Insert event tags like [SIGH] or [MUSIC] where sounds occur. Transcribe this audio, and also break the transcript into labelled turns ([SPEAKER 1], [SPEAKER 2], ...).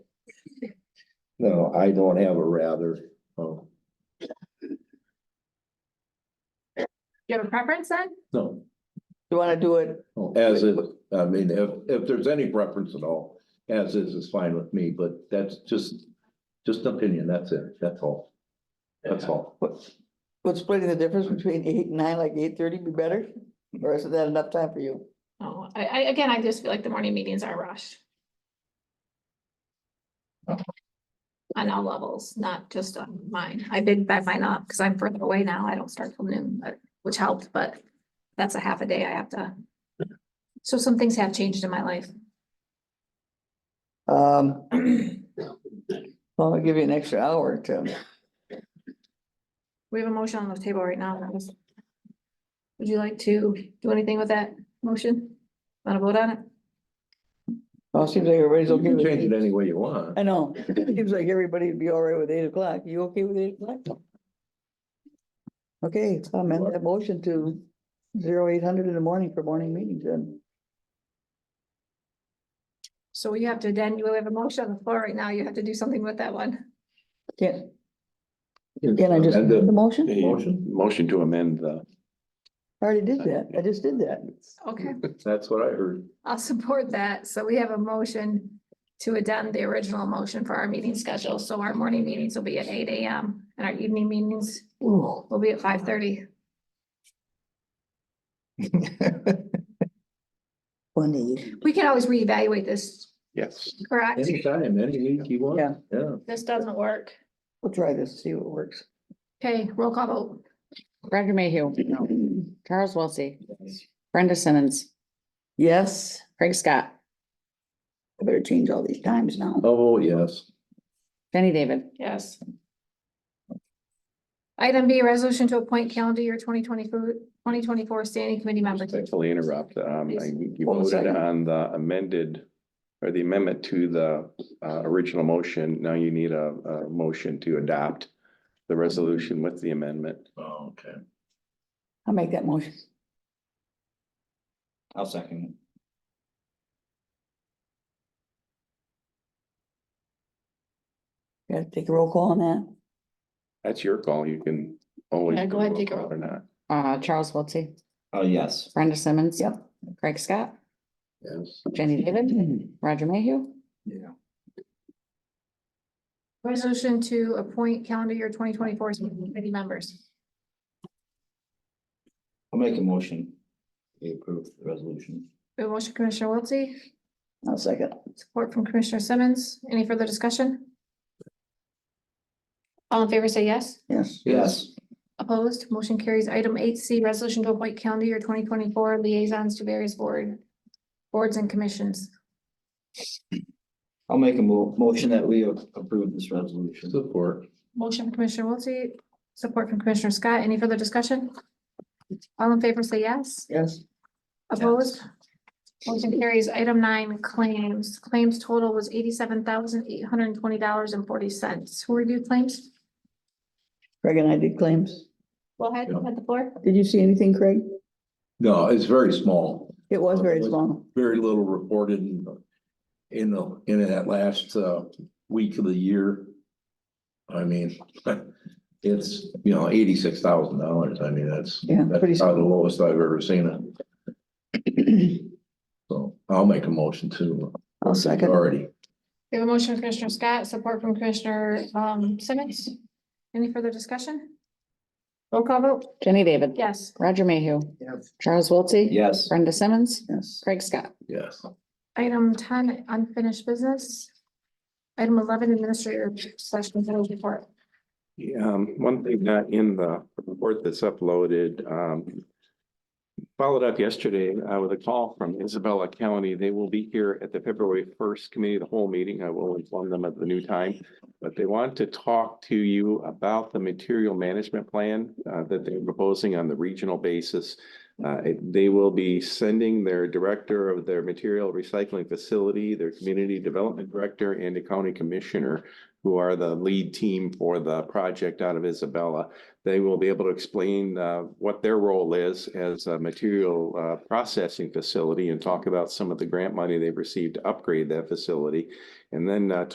[SPEAKER 1] No, I don't have a rather. Oh,
[SPEAKER 2] you have a preference then?
[SPEAKER 1] no,
[SPEAKER 3] You wanna do it,
[SPEAKER 1] as it, I mean, if, if there's any preference at all, as is, is fine with me, but that's just, just opinion, that's it, that's all. That's all.
[SPEAKER 3] what, would splitting the difference between eight and nine, like eight thirty be better? Or isn't that enough time for you?
[SPEAKER 2] Oh, I, I, again, I just feel like the morning meetings are rushed. On all levels, not just on mine. I big bad mine up because I'm further away now. I don't start till noon, but, which helped, but that's a half a day I have to. So some things have changed in my life.
[SPEAKER 3] Um, well, I'll give you an extra hour to,
[SPEAKER 2] We have a motion on the table right now. that was- Would you like to do anything with that motion? Want to vote on it?
[SPEAKER 3] well, it seems like everybody's
[SPEAKER 1] You
[SPEAKER 3] okay
[SPEAKER 1] can
[SPEAKER 3] with
[SPEAKER 1] change it
[SPEAKER 3] it.
[SPEAKER 1] any way you want.
[SPEAKER 3] I know, it seems like everybody'd be all right with eight o'clock, you okay with eight o'clock? Okay, I'll amend that motion to zero eight hundred in the morning for morning meetings then.
[SPEAKER 2] So you have to, then you have a motion on the floor right now. You have to do something with that one.
[SPEAKER 3] Can, can I just
[SPEAKER 1] And
[SPEAKER 3] amend the
[SPEAKER 1] the
[SPEAKER 3] motion?
[SPEAKER 4] A
[SPEAKER 1] Motion?
[SPEAKER 4] Motion to amend the,
[SPEAKER 3] I already did that, I just did that.
[SPEAKER 2] Okay.
[SPEAKER 1] That's what I heard.
[SPEAKER 2] I'll support that. So we have a motion to addend the original motion for our meeting schedule. So our morning meetings will be at eight AM and our evening meetings
[SPEAKER 3] Ooh.
[SPEAKER 2] will be at five thirty.
[SPEAKER 3] Funny.
[SPEAKER 2] We can always reevaluate this,
[SPEAKER 4] yes,
[SPEAKER 2] correct?
[SPEAKER 1] Anytime, any week you want,
[SPEAKER 3] Yeah.
[SPEAKER 1] yeah.
[SPEAKER 2] This doesn't work.
[SPEAKER 3] We'll try this, see what works.
[SPEAKER 2] Okay, roll call vote.
[SPEAKER 5] Roger Mayhew, Charles Wilsey, Brenda Simmons,
[SPEAKER 3] Yes,
[SPEAKER 5] Craig Scott,
[SPEAKER 3] I better change all these times now.
[SPEAKER 1] Oh, yes.
[SPEAKER 5] Jenny David.
[SPEAKER 2] Yes. Item B, resolution to appoint calendar year 2024 2024 standing committee members.
[SPEAKER 4] thankfully interrupt, um, I- you
[SPEAKER 3] Hold a
[SPEAKER 4] voted
[SPEAKER 3] second.
[SPEAKER 4] on the amended. Or the amendment to the, uh, original motion, now you need a, a motion to adopt. The resolution with the amendment,
[SPEAKER 1] Oh, Okay.
[SPEAKER 3] I'll make that motion.
[SPEAKER 6] I'll second.
[SPEAKER 3] Gotta take a roll call on that.
[SPEAKER 4] that's your call, you can always.
[SPEAKER 2] Yeah, go ahead, take a
[SPEAKER 4] vote
[SPEAKER 2] roll.
[SPEAKER 4] Or not,
[SPEAKER 5] Uh, Charles Wilsey,
[SPEAKER 6] Oh, yes.
[SPEAKER 5] Brenda Simmons.
[SPEAKER 3] Yep.
[SPEAKER 5] Craig Scott,
[SPEAKER 1] Yes.
[SPEAKER 5] Jenny David,
[SPEAKER 6] [CLEARS THROAT]
[SPEAKER 5] Roger Mayhew,
[SPEAKER 6] Yeah.
[SPEAKER 2] Resolution to appoint calendar year 2024 standing committee members.
[SPEAKER 6] I'll make a motion. We approve the resolution.
[SPEAKER 2] We have a Motion Commissioner Wiltie.
[SPEAKER 3] I'll second.
[SPEAKER 2] Support from Commissioner Simmons. Any further discussion? All in favor, say yes.
[SPEAKER 3] Yes,
[SPEAKER 6] Yes.
[SPEAKER 2] Opposed, motion carries. Item eight C, resolution to appoint calendar year twenty twenty-four liaisons to various board, boards and commissions.
[SPEAKER 6] I'll make a mo- motion that we approve this resolution.
[SPEAKER 1] Support.
[SPEAKER 2] Motion from Commissioner Wiltie, support from Commissioner Scott. Any further discussion? All in favor, say yes.
[SPEAKER 3] yes.
[SPEAKER 2] Opposed? Motion carries. Item nine, claims. Claims total was eighty-seven thousand eight hundred and twenty dollars and forty cents. Who reviewed claims?
[SPEAKER 3] Craig and I did claims.
[SPEAKER 2] Go ahead, at the floor.
[SPEAKER 3] Did you see anything, Craig?
[SPEAKER 1] No, it's very small.
[SPEAKER 3] It was very small.
[SPEAKER 1] very little reported in the, in the, in that last, uh, week of the year. I mean, [LAUGHS] it's, you know, eighty-six thousand dollars. I mean, that's,
[SPEAKER 3] Yeah, pretty
[SPEAKER 1] that's
[SPEAKER 3] small.
[SPEAKER 1] probably the lowest I've ever seen it. [CLEARS THROAT] So I'll make a motion to.
[SPEAKER 3] I'll second.
[SPEAKER 1] Already.
[SPEAKER 2] We have a motion from Commissioner Scott, support from Commissioner um Simmons. Any further discussion? Roll call vote?
[SPEAKER 5] Jenny David.
[SPEAKER 2] Yes.
[SPEAKER 5] Roger Mayhew, Charles Wilsey,
[SPEAKER 6] Yes.
[SPEAKER 5] Brenda Simmons,
[SPEAKER 3] Yes.
[SPEAKER 5] Craig Scott.
[SPEAKER 1] Yes.
[SPEAKER 2] Item ten, unfinished business. Item eleven, administrator slash control report.
[SPEAKER 4] Yeah, um, one thing not in the report that's uploaded, um. Followed up yesterday, uh, with a call from Isabella County. They will be here at the February first committee, of the whole meeting. I will inform them of the new time. But they want to talk to you about the material management plan, uh, that they're proposing on the regional basis. Uh, it- they will be sending their director of their material recycling facility, their community development director and a county commissioner who are the lead team for the project out of Isabella. They will be able to explain uh, what their role is as a material uh, processing facility and talk about some of the grant money they've received to upgrade that facility. And then uh,